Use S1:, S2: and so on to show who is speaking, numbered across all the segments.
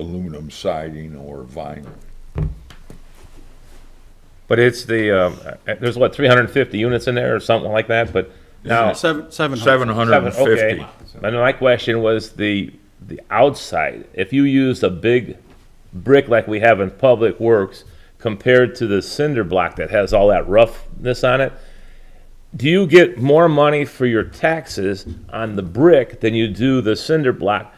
S1: aluminum siding or vinyl.
S2: But it's the, um, uh, there's what, 350 units in there or something like that, but now.
S3: Seven, seven
S1: Seven
S3: hundred.
S1: hundred and fifty.
S2: Okay. And my question was the, the outside. If you used a big brick like we have in Public Works compared to the cinder block that has all that roughness on it, do you get more money for your taxes on the brick than you do the cinder block?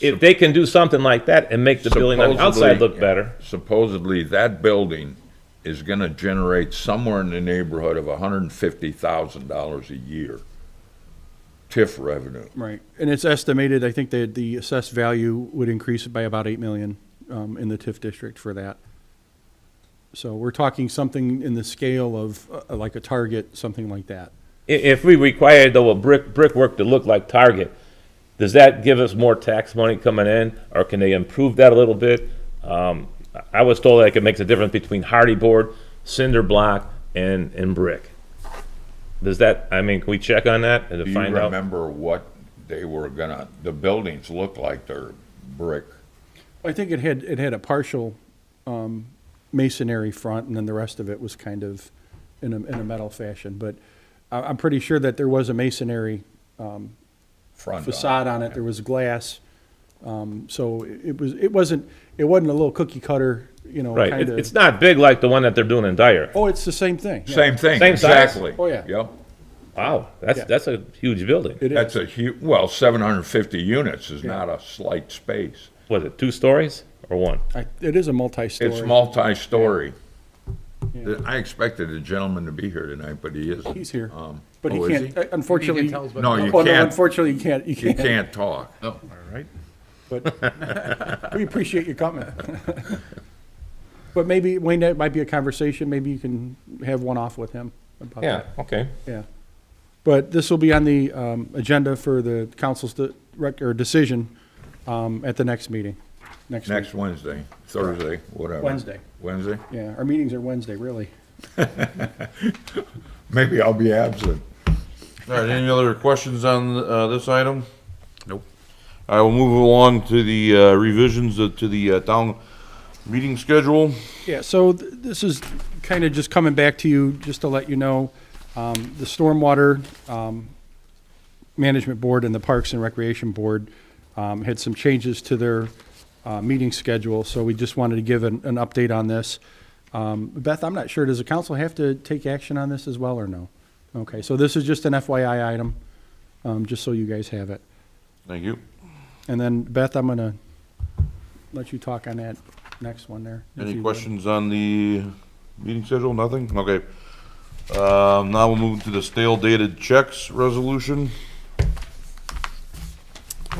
S2: If they can do something like that and make the building on the outside
S1: Supposedly-
S2: look better,
S1: Supposedly, that building is gonna generate somewhere in the neighborhood of hundred and fifty thousand dollars a year. TIF revenue.
S3: Right, and it's estimated, I think that the assessed value would increase by about eight million, um, in the TIF district for that. So we're talking something in the scale of, uh, like a target, something like that.
S2: i- if we require though a brick, brickwork to look like Target, does that give us more tax money coming in, or can they improve that a little bit? Um, I- I was told like it makes a difference between hardy board, cinder block, and, and brick. Does that, I mean, can we check on that and
S1: Do
S2: to
S1: you
S2: find out?
S1: remember what they were gonna, the buildings look like they're brick?
S3: I think it had, it had a partial, um, masonry front, and then the rest of it was kind of in a, in a metal fashion, but I, I'm pretty sure that there was a masonry
S1: front on it.
S3: facade on it, there was glass. Um, so it it was, it wasn't, it wasn't a little cookie cutter, you know,
S2: Right, it-
S3: kind
S2: it's
S3: of.
S2: not big like the one that they're doing in Dyer.
S3: Oh, it's the same thing. yeah.
S1: Same thing,
S2: Same size?
S1: exactly.
S3: Oh, yeah.
S1: Yep.
S2: Wow, that's,
S3: Yeah.
S2: that's a huge building.
S3: It
S1: That's
S3: is.
S1: a hu, well, seven hundred and fifty units is not a slight space.
S2: Was it two stories or one?
S3: I- It is a multi-story.
S1: It's multi-story. I expected the gentleman to be here tonight, but he isn't.
S3: He's here,
S1: Um,
S3: but he
S1: oh, is
S3: can't, uh, unfortunately.
S4: tell us what-
S1: No, you
S3: Oh, no,
S1: can't,
S3: Unfortunately, you can't, you
S1: you
S3: can't.
S1: can't talk.
S4: Oh, all right.
S3: But we appreciate you coming. But maybe, Wayne, that might be a conversation, maybe you can have one off with him about that.
S2: okay.
S3: Yeah. But this will be on the um, agenda for the council's de- rec- or decision um, at the next meeting, next week.
S1: Next Wednesday, Thursday, whatever.
S3: Wednesday.
S1: Wednesday?
S3: Yeah, our meetings are Wednesday, really.
S1: Maybe I'll be absent.
S5: All right, any other questions on uh, this item? Nope. I will move along to the uh, revisions of- to the uh, town meeting schedule.
S3: Yeah, so th- this is kind of just coming back to you, just to let you know, um, the Stormwater um, Management Board and the Parks and Recreation Board um, had some changes to their uh, meeting schedule, so we just wanted to give an, an update on this. Um, Beth, I'm not sure, does the council have to take action on this as well, or no? Okay, so this is just an FYI item, um, just so you guys have it.
S5: Thank you.
S3: And then Beth, I'm going to let you talk on that next one there. if you
S5: Any
S3: would.
S5: questions on the meeting schedule? Nothing? Okay. Um, Now we'll move to the stale dated checks resolution.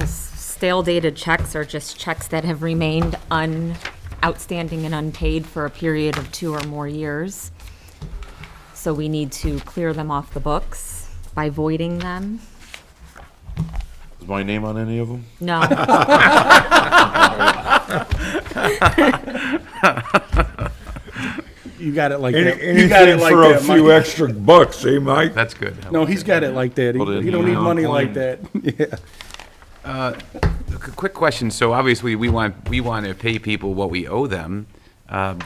S6: Stale dated checks are just checks that have remained un, outstanding and unpaid for a period of two or more years. So we need to clear them off the books by voiding them.
S5: Is my name on any of them?
S6: No,
S3: You got it like that. You got it
S1: Anything
S3: like
S1: for a
S3: that,
S1: few
S3: Mike.
S1: extra bucks, eh, Mike?
S4: That's good.
S3: No, he's got it like that.
S5: Put it
S3: He-
S5: in
S3: You don't
S5: the
S3: need money
S5: envelope.
S3: like that. Yeah.
S4: A qu- Quick question. So obviously, we want, we want to pay people what we owe them. Um,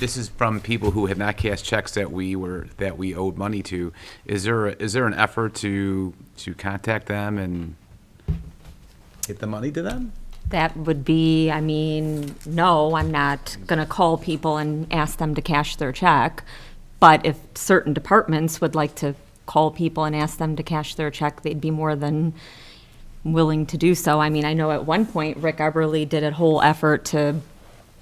S4: This is from people who have not cashed checks that we were, that we owed money to. Is there, is there an effort to, to contact them and get the money to them?
S6: that would be, I mean, no, I'm not going to call people and ask them to cash their check. But if certain departments would like to call people and ask them to cash their check, they'd be more than willing to do so. I mean, I know at one point Rick Eberly did a whole effort to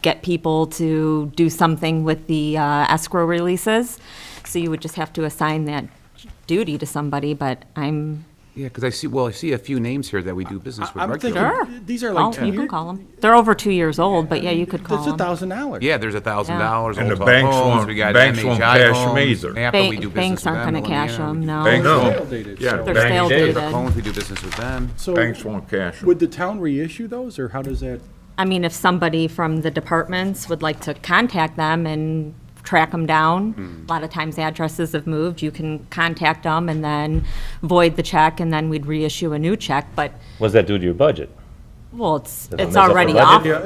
S6: get people to do something with the uh, escrow releases. So you would just have to assign that duty to somebody, but I'm,
S4: Yeah, because I see, well, I see a few names here that we do business with
S3: I'm
S4: regularly.
S3: thinking,
S6: Sure.
S3: these are
S6: oh,
S3: like two
S6: you can
S3: years.
S6: call them. They're over two years old, but yeah, you could call
S3: That's a
S6: them.
S3: thousand dollars.
S4: Yeah, there's a thousand dollars.
S1: And the banks won't-
S4: We got
S1: banks won't
S4: MHI
S1: cash 'em
S4: homes,
S1: either.
S4: NAPA, we do
S6: Bank-
S4: business
S6: Banks
S4: with
S6: aren't going to
S4: Illinois,
S6: cash
S4: yeah, we
S6: them,
S4: do-
S6: no.
S1: Banks
S3: stale
S1: won't,
S3: dated,
S1: yeah,
S3: so-
S6: They're
S1: banks-
S6: stale dated.
S4: Bank loans, we do business with them.
S3: So
S1: banks won't cash 'em.
S3: would the town reissue those or how does that?
S6: I mean, if somebody from the departments would like to contact them and track them
S4: Hmm.
S6: down, a lot of times addresses have moved, you can contact them and then void the check, and then we'd reissue a new check, but
S2: What's that do to your budget?
S6: Well, it's,
S2: don't
S6: it's
S2: mess up the
S6: already
S2: budget.
S6: off.